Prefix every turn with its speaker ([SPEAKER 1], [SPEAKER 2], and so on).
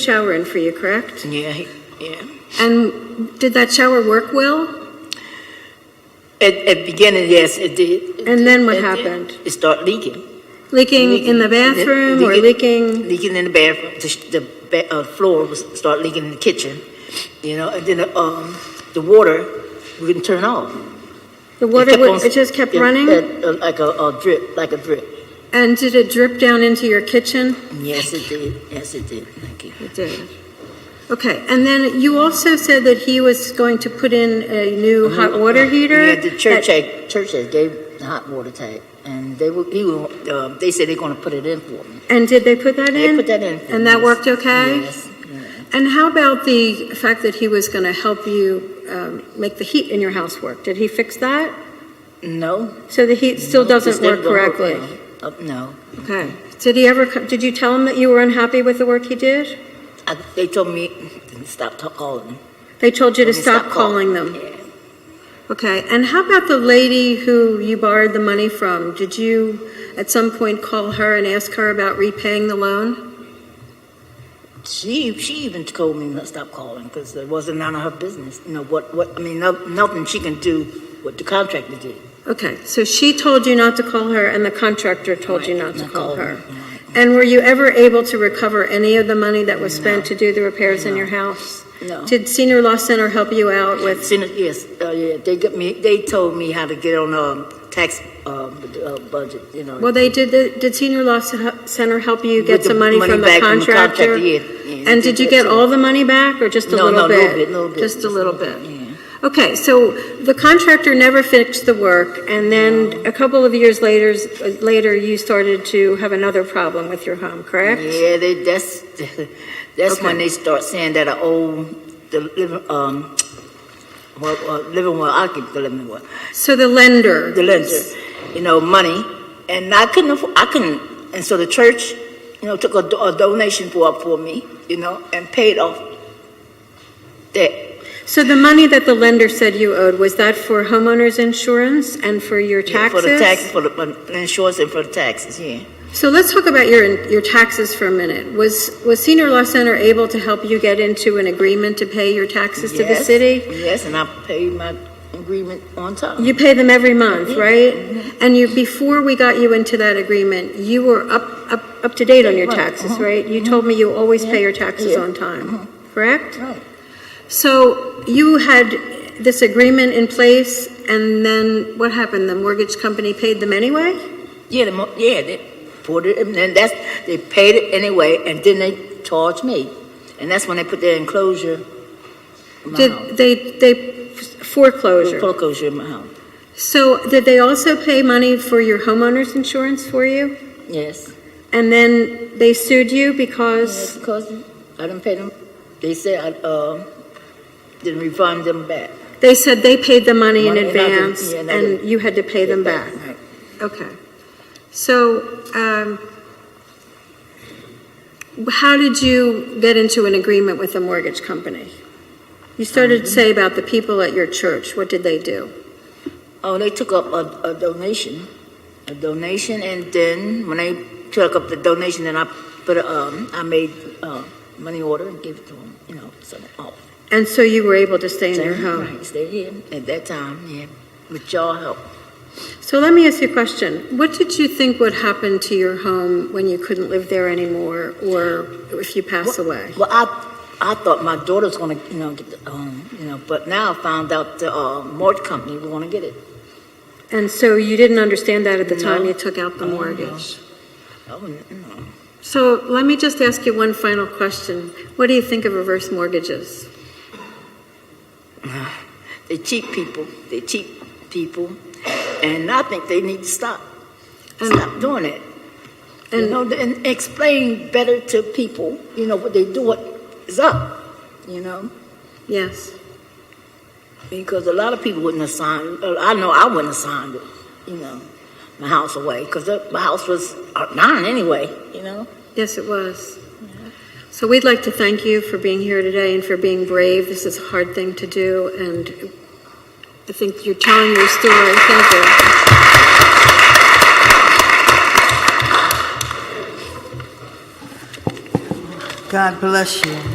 [SPEAKER 1] shower in for you, correct?
[SPEAKER 2] Yeah, he- yeah.
[SPEAKER 1] And did that shower work well?
[SPEAKER 2] At, at beginning, yes, it did.
[SPEAKER 1] And then what
[SPEAKER 2] It did.
[SPEAKER 1] happened?
[SPEAKER 2] It started leaking,
[SPEAKER 1] Leaking in the bathroom or leaking?
[SPEAKER 2] leaking in the bathroom. The, sh- the ba- uh, floor was start leaking in the kitchen, you know. And then uh, um, the water we couldn't turn off.
[SPEAKER 1] The
[SPEAKER 2] It
[SPEAKER 1] water,
[SPEAKER 2] kept
[SPEAKER 1] would-
[SPEAKER 2] on-
[SPEAKER 1] it just kept
[SPEAKER 2] it-
[SPEAKER 1] running?
[SPEAKER 2] it, uh, like a, a drip, like a drip.
[SPEAKER 1] And did it drip down into your kitchen?
[SPEAKER 2] Yes, it did. Yes, it did. Thank you.
[SPEAKER 1] It did. Okay, and then you also said that he was going to put in a new hot water heater?
[SPEAKER 2] Uh-huh. Mm-hmm. Yeah, the church
[SPEAKER 1] that-
[SPEAKER 2] had, church had gave the hot water tank, and they were, he were, uh, they said they're gonna put it in for me.
[SPEAKER 1] And did they put that
[SPEAKER 2] They
[SPEAKER 1] in?
[SPEAKER 2] put that in. for
[SPEAKER 1] And
[SPEAKER 2] me,
[SPEAKER 1] that
[SPEAKER 2] yes.
[SPEAKER 1] worked okay?
[SPEAKER 2] Yes, yeah.
[SPEAKER 1] And how about the fact that he was going to help you um, make the heat in your house work? Did he fix that?
[SPEAKER 2] No.
[SPEAKER 1] So the heat still
[SPEAKER 2] no,
[SPEAKER 1] doesn't
[SPEAKER 2] it's never
[SPEAKER 1] work
[SPEAKER 2] gonna
[SPEAKER 1] correctly?
[SPEAKER 2] well. Uh, No,
[SPEAKER 1] Okay. Did he ever, co- did you tell him that you were unhappy with the work he did?
[SPEAKER 2] I, they told me, to stop ta- calling.
[SPEAKER 1] They told you to
[SPEAKER 2] Told me
[SPEAKER 1] stop calling them?
[SPEAKER 2] Yeah.
[SPEAKER 1] Okay, and how about the lady who you borrowed the money from? Did you at some point call her and ask her about repaying the loan?
[SPEAKER 2] She, she even told me to stop calling, because it wasn't none of her business, you know, what, what, I mean, no, nothing she can do what the contractor did.
[SPEAKER 1] Okay, so she told you not to call her and the contractor told you
[SPEAKER 2] Right,
[SPEAKER 1] not to call her.
[SPEAKER 2] me, right.
[SPEAKER 1] And were you ever able to recover any of the money that was spent to do the repairs in your house?
[SPEAKER 2] No.
[SPEAKER 1] Did Senior Law Center help you out with,
[SPEAKER 2] Sen- Yes, uh, yeah, they got me, they told me how to get on, um, tax, um, bu- uh, budget, you know.
[SPEAKER 1] well, they did, the- did Senior Law Ce- Center help you get
[SPEAKER 2] with the
[SPEAKER 1] some money from the
[SPEAKER 2] back
[SPEAKER 1] contractor?
[SPEAKER 2] yeah, yeah, they
[SPEAKER 1] And did you
[SPEAKER 2] that
[SPEAKER 1] get
[SPEAKER 2] too.
[SPEAKER 1] all the money back or just a
[SPEAKER 2] No,
[SPEAKER 1] little
[SPEAKER 2] no,
[SPEAKER 1] bit?
[SPEAKER 2] little bit, little bit.
[SPEAKER 1] Just a little bit?
[SPEAKER 2] Yeah.
[SPEAKER 1] Okay, so the contractor never fixed the work, and then a couple of years later, later you started to have another problem with your home, correct?
[SPEAKER 2] Yeah, they, that's, that's
[SPEAKER 1] Okay.
[SPEAKER 2] when they start saying that I owe the living, um, well, uh, living well, I keep the living well,
[SPEAKER 1] So the lender.
[SPEAKER 2] the lender, you know, money, and I couldn't, afford, I couldn't, and so the church, you know, took a, do- a donation for for me, you know, and paid off that.
[SPEAKER 1] So the money that the lender said you owed, was that for homeowners insurance and for your
[SPEAKER 2] For the tax,
[SPEAKER 1] taxes?
[SPEAKER 2] for the for the insurance and for the taxes, yeah.
[SPEAKER 1] So let's talk about your, your taxes for a minute. Was, was Senior Law Center able to help you get into an agreement to pay your taxes to the
[SPEAKER 2] Yes,
[SPEAKER 1] city?
[SPEAKER 2] Yes, and I paid my agreement on time.
[SPEAKER 1] You pay them every month, right? And you, before we got you into that agreement, you were up, up, up to date on your
[SPEAKER 2] Right,
[SPEAKER 1] taxes,
[SPEAKER 2] uh-huh,
[SPEAKER 1] right? You told me you always pay your
[SPEAKER 2] Yeah,
[SPEAKER 1] taxes
[SPEAKER 2] yeah, Uh-huh.
[SPEAKER 1] on time, correct?
[SPEAKER 2] Right.
[SPEAKER 1] So you had this agreement in place and then what happened? The mortgage company paid them anyway?
[SPEAKER 2] Yeah, the, mo- yeah, they poured it, and then that's, they paid it anyway, and then they charged me. And that's when they put their enclosure in my house.
[SPEAKER 1] Did they, they foreclosure?
[SPEAKER 2] Foreclosure in my house,
[SPEAKER 1] So did they also pay money for your homeowner's insurance for you?
[SPEAKER 2] yes.
[SPEAKER 1] And then they sued you because?
[SPEAKER 2] Yes, because I didn't pay them, they said I, uh, didn't refund them back.
[SPEAKER 1] They said they paid the money in
[SPEAKER 2] Money, and I didn't-
[SPEAKER 1] advance,
[SPEAKER 2] yeah, and I didn't
[SPEAKER 1] and you had to pay them back.
[SPEAKER 2] Right.
[SPEAKER 1] Okay. So, um, how did you get into an agreement with the mortgage company? You started to
[SPEAKER 2] Um,
[SPEAKER 1] say about the people at your church. What did they do?
[SPEAKER 2] Oh, they took up a, a donation, a donation, and then when they took up the donation, then I put, a, um, I made, uh, money order and gave it to them, you know, so, oh.
[SPEAKER 1] And so you were able to stay in your home.
[SPEAKER 2] Mm-hmm. Right, stay here at that time, yeah, with y'all help.
[SPEAKER 1] So let me ask you a question. What did you think would happen to your home when you couldn't live there anymore, or if you pass away?
[SPEAKER 2] Well, I, I thought my daughter's gonna, you know, get the home, you know, but now I found out the, uh, mortgage company was gonna get it.
[SPEAKER 1] And so you didn't understand that at the time
[SPEAKER 2] No.
[SPEAKER 1] you took out the
[SPEAKER 2] Oh, no.
[SPEAKER 1] mortgage?
[SPEAKER 2] I wouldn't, you know.
[SPEAKER 1] So let me just ask you one final question. What do you think of reverse mortgages?
[SPEAKER 2] They cheat people, they cheat people, and I think they need to stop,
[SPEAKER 1] And-
[SPEAKER 2] stop doing it. You
[SPEAKER 1] And-
[SPEAKER 2] know, and explain better to people, you know, what they do, what is up, you know?
[SPEAKER 1] Yes.
[SPEAKER 2] Because a lot of people wouldn't have signed, uh, I know I wouldn't have signed it, you know, my house away, because my house was uh, mine anyway, you know?
[SPEAKER 1] Yes, it was. So we'd like to thank you for being here today and for being brave. This is a hard thing to do, and I think you're telling your story. Thank you.
[SPEAKER 3] God bless you.